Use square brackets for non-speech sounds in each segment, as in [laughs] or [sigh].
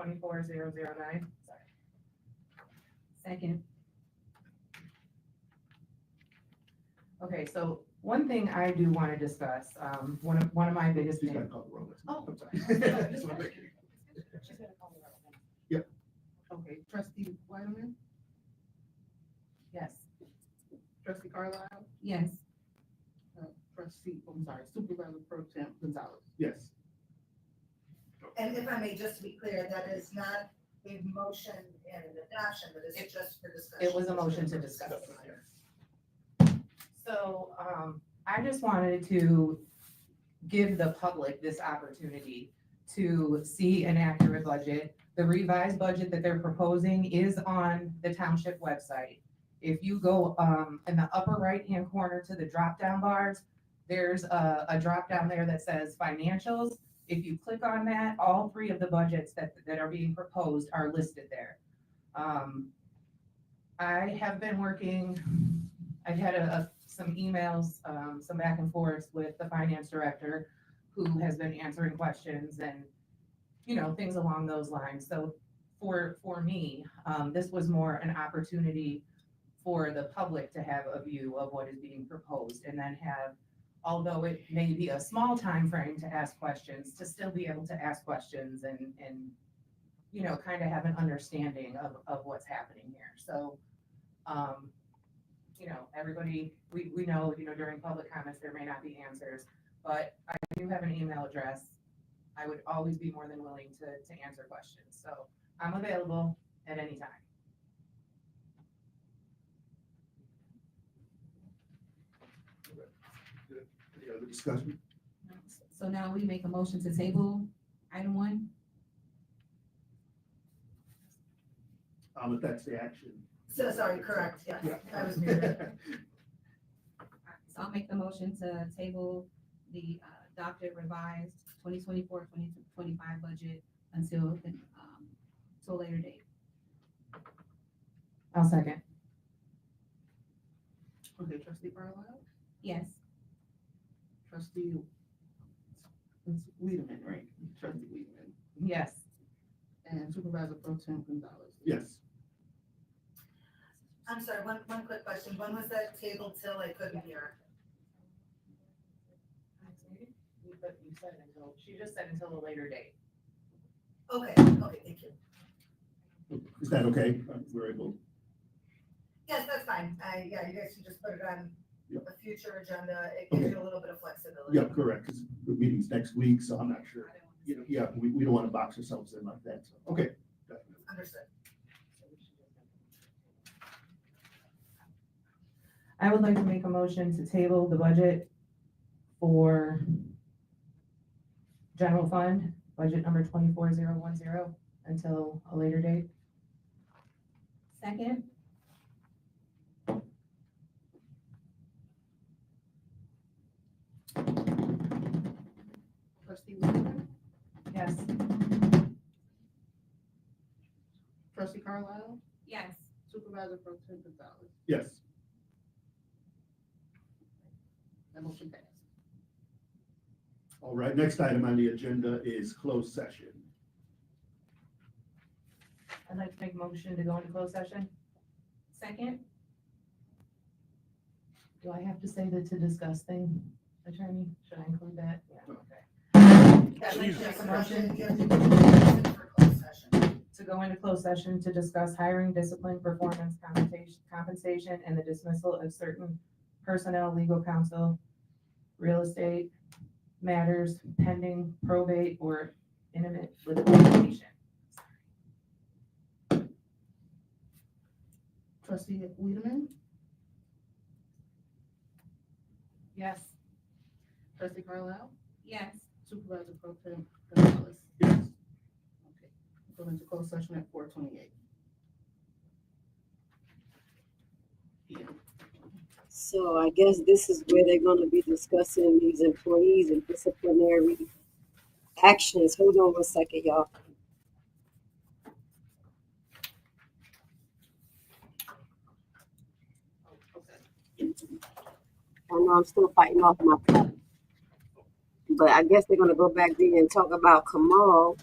twenty-four zero zero nine. Second. Okay, so one thing I do want to discuss, um, one of, one of my biggest She's things. gonna call the roll. Oh. I'm sorry. [laughs] That's what I'm thinking. She's gonna call me right now. Okay, trustee Wyman, Yes, trustee Carlisle, yes, uh, trustee, I'm sorry, supervisor pro temp Gonzalez. Yes, And if I may, just to be clear, that is not a motion and an adoption, but it's just for discussion. It was a motion to discuss. So, um, I just wanted to give the public this opportunity to see an accurate budget. The revised budget that they're proposing is on the township website. If you go, um, in the upper right-hand corner to the drop-down bars, there's a, a drop-down there that says financials. If you click on that, all three of the budgets that, that are being proposed are listed there. Um, I have been working, I've had a, a- some emails, um, some back and forths with the finance director who has been answering questions and, you know, things along those lines. So for, for me, um, this was more an opportunity for the public to have a view of what is being proposed and then have, although it may be a small time frame to ask questions, to still be able to ask questions and, and, you know, kind of have an understanding of, of what's happening here. So, um, you know, everybody, we, we know, you know, during public comments, there may not be answers, but I do have an email address. I would always be more than willing to, to answer questions, so I'm available at any time. any other discussion? so now we make a motion to table item one, Um, if that's the action. So sorry, correct, yes, Yeah. I was muted. so I'll make the motion to table the uh, adopted revised 2024-2025 budget until, the, um, till later date. I'll second. Okay, trustee Carlisle, Yes, trustee, It's Weedman, right? Trustee Weedman. yes, And Supervisor Pro Tem [laughs] Gonzalez. Yes, I'm sorry, one, one quick question, when was that table till I couldn't hear? but you said until, she just said until a later date. Okay, okay, thank you. is that okay? Uh, We're able, Yes, that's fine, I, yeah, you guys can just put it on Yep. a future agenda, it gives you a little bit of flexibility. yeah, correct, because the meeting's next week, so I'm not sure. You know, yeah, we, we don't want to box ourselves in like that, so, okay. definitely. Understood. I would like to make a motion to table the budget for general fund, budget number twenty-four zero one zero, until a later date. second, Trustee Weedman, Yes. Trustee Carlisle, yes, Supervisor Pro Tem Gonzalez. Yes, That motion passed. all right, next item on the agenda is closed session. I'd like to make a motion to go into closed session. second, Do I have to say the to discuss thing, attorney? Should I include that? Yeah, okay. I'd like to Jesus. make a motion, you have to do this for closed session. To go into closed session to discuss hiring, discipline, performance, compensation, compensation, and the dismissal of certain personnel, legal counsel, real estate matters pending probate or intimate litigation. Trustee Weedman, Yes. Trustee Carlisle, yes. Supervisor Pro Tem Gonzalez. Yes, Okay. Go into closed session at four twenty-eight. So I guess this is where they're gonna be discussing these employees and disciplinary actions. Hold on one second, y'all. I know I'm still fighting off my cold. But I guess they're gonna go back there and talk about Kamal.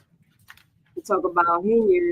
talk about Henyard